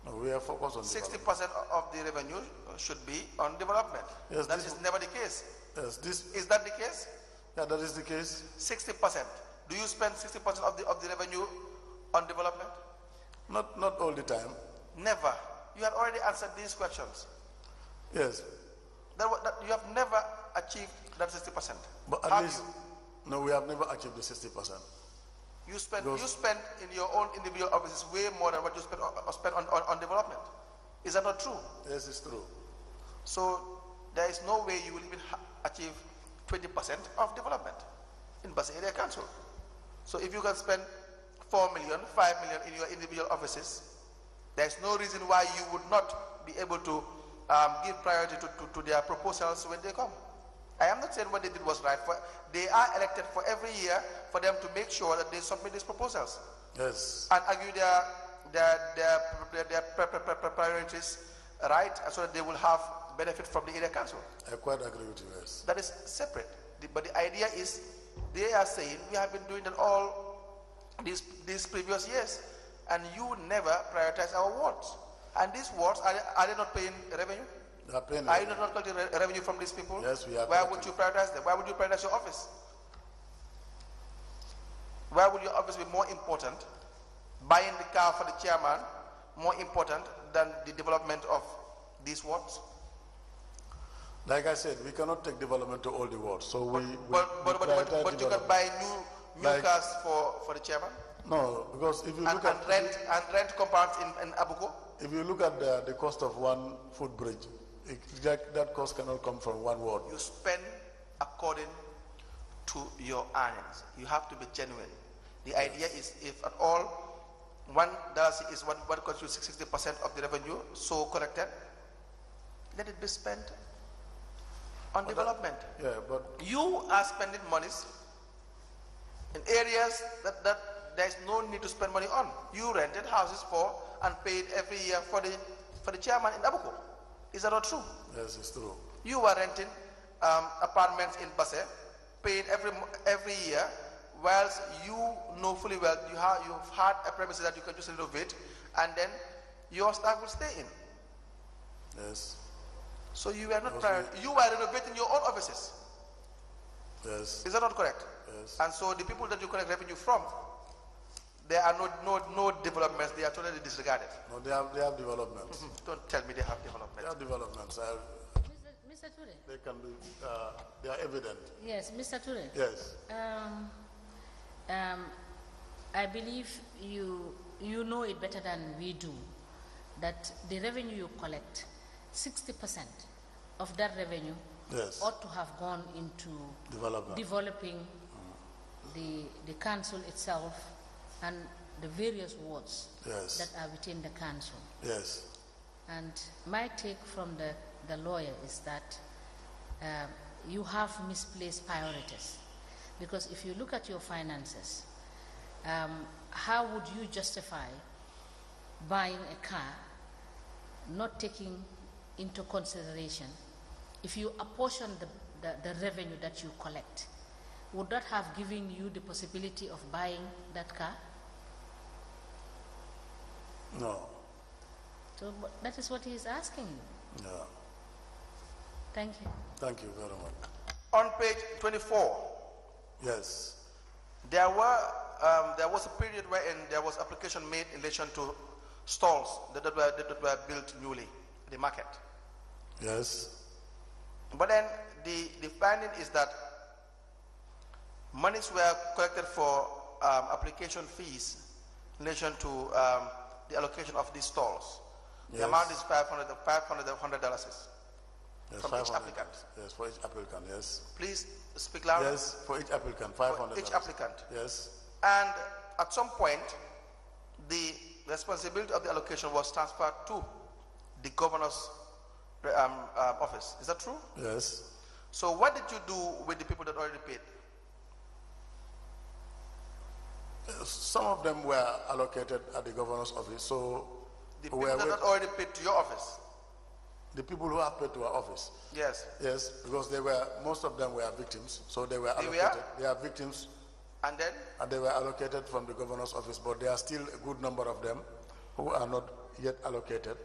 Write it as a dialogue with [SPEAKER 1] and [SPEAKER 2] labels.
[SPEAKER 1] we are focused on
[SPEAKER 2] Sixty
[SPEAKER 1] development.
[SPEAKER 2] percent of the revenue uh, should be on development.
[SPEAKER 1] Yes,
[SPEAKER 2] That
[SPEAKER 1] this
[SPEAKER 2] is never the case.
[SPEAKER 1] Yes, this,
[SPEAKER 2] Is that the case?
[SPEAKER 1] yeah, that is the case.
[SPEAKER 2] Sixty percent. Do you spend sixty percent of the, of the revenue on development?
[SPEAKER 1] Not, not all the time.
[SPEAKER 2] Never. You had already answered these questions.
[SPEAKER 1] Yes,
[SPEAKER 2] That, wa- that- you have never achieved that sixty percent.
[SPEAKER 1] but at least, no, we have never achieved the sixty percent.
[SPEAKER 2] You spend,
[SPEAKER 1] Those-
[SPEAKER 2] you spend in your own individual offices way more than what you spend, on- on- spend on, on, on development. Is that not true?
[SPEAKER 1] Yes, it's true.
[SPEAKER 2] So there is no way you will even ha- achieve 20% of development in Basa Area Council. So if you can spend 4 million, 5 million in your individual offices, there's no reason why you would not be able to um, give priority to, to, to their proposals when they come. I am not saying what they did was right. For, they are elected for every year for them to make sure that they submit these proposals
[SPEAKER 1] Yes,
[SPEAKER 2] and argue their their their, their, their pri- pri- pri- pri- priorities right so that they will have benefit from the area council.
[SPEAKER 1] I quite agree with you, yes.
[SPEAKER 2] That is separate. The- but the idea is they are saying we have been doing that all these these previous years and you never prioritize our wards. And these wards are, they- are they not paying revenue?
[SPEAKER 1] They are paying
[SPEAKER 2] Are you
[SPEAKER 1] it.
[SPEAKER 2] not not collecting re- revenue from these people?
[SPEAKER 1] Yes, we are
[SPEAKER 2] Why would you
[SPEAKER 1] collecting.
[SPEAKER 2] prioritize them? Why would you prioritize your office? Why would your office be more important, buying the car for the chairman, more important than the development of these wards?
[SPEAKER 1] Like I said, we cannot take development to all the world, so we. we-
[SPEAKER 2] But, but,
[SPEAKER 1] we
[SPEAKER 2] but, but,
[SPEAKER 1] prioritize
[SPEAKER 2] but you can
[SPEAKER 1] development.
[SPEAKER 2] buy new, new
[SPEAKER 1] Like-
[SPEAKER 2] cars for, for the chairman
[SPEAKER 1] No, because if you
[SPEAKER 2] and,
[SPEAKER 1] look
[SPEAKER 2] and
[SPEAKER 1] at,
[SPEAKER 2] rent, and rent compounds in, in Abuko?
[SPEAKER 1] if you look at the, the cost of one footbridge, it, that, that cost cannot come from one world.
[SPEAKER 2] You spend according to your earnings. You have to be genuine. The idea is if at all one dollar is what, what constitutes sixty percent of the revenue so collected, let it be spent on development.
[SPEAKER 1] Yeah, but
[SPEAKER 2] You are spending monies in areas that, that there is no need to spend money on. You rented houses for and paid every year for the for the chairman in Abuko. Is that not true?
[SPEAKER 1] yes, it's true.
[SPEAKER 2] You were renting um, apartments in Basse, paying every mo- every year, whilst you know fully well you have you've had a premises that you can just renovate, and then your staff will stay in.
[SPEAKER 1] Yes,
[SPEAKER 2] So you were not
[SPEAKER 1] Yes,
[SPEAKER 2] prior, you were renovating your own offices.
[SPEAKER 1] yes,
[SPEAKER 2] Is that not correct?
[SPEAKER 1] yes,
[SPEAKER 2] And so the people that you collect revenue from, there are no no no developments. They are totally disregarded. Hmm,
[SPEAKER 1] no, they have, they have developments,
[SPEAKER 2] Don't tell me they have
[SPEAKER 1] they
[SPEAKER 2] development.
[SPEAKER 1] have developments, I,
[SPEAKER 3] Mr. Ture?
[SPEAKER 1] they can be, uh, they are evident,
[SPEAKER 3] Yes, Mr. Ture.
[SPEAKER 1] yes.
[SPEAKER 3] Um, um, I believe you, you know it better than we do, that the revenue you collect, sixty percent of that revenue
[SPEAKER 1] Yes.
[SPEAKER 3] ought to have gone into
[SPEAKER 1] Development.
[SPEAKER 3] developing the, the council itself and the various wards
[SPEAKER 1] Yes.
[SPEAKER 3] that are within the council.
[SPEAKER 1] Yes,
[SPEAKER 3] And my take from the, the lawyer is that um, you have misplaced priorities. Because if you look at your finances, um, how would you justify buying a car, not taking into consideration, if you apportion the, the, the revenue that you collect, would that have given you the possibility of buying that car?
[SPEAKER 1] no,
[SPEAKER 3] So but that is what he is asking you.
[SPEAKER 1] no,
[SPEAKER 3] Thank you.
[SPEAKER 1] thank you very much,
[SPEAKER 2] On page twenty-four.
[SPEAKER 1] yes,
[SPEAKER 2] There were um, there was a period wherein there was application made in relation to stalls that, that, were, that were built newly, the market.
[SPEAKER 1] yes,
[SPEAKER 2] But then the, the finding is that monies were collected for um, application fees in relation to um, the allocation of these stalls.
[SPEAKER 1] Yes.
[SPEAKER 2] The amount is 500 dollars.
[SPEAKER 1] yes,
[SPEAKER 2] From each
[SPEAKER 1] five hundred.
[SPEAKER 2] applicant.
[SPEAKER 1] Yes, for each applicant, yes,
[SPEAKER 2] Please speak loud.
[SPEAKER 1] yes, for each applicant, five hundred.
[SPEAKER 2] each applicant.
[SPEAKER 1] Yes,
[SPEAKER 2] And at some point, the responsibility of the allocation was transferred to the governor's um, uh, office. Is that true?
[SPEAKER 1] yes,
[SPEAKER 2] So, what did you do with the people that already paid?
[SPEAKER 1] some of them were allocated at the governor's office, so
[SPEAKER 2] The people
[SPEAKER 1] were
[SPEAKER 2] that
[SPEAKER 1] wait-
[SPEAKER 2] had already paid to your office.
[SPEAKER 1] the people who have paid to our office.
[SPEAKER 2] Yes.
[SPEAKER 1] Yes, because they were, most of them were victims, so they were
[SPEAKER 2] They were?
[SPEAKER 1] allocated. They are victims
[SPEAKER 2] And then
[SPEAKER 1] and they were allocated from the governor's office, but there are still a good number of them who are not yet allocated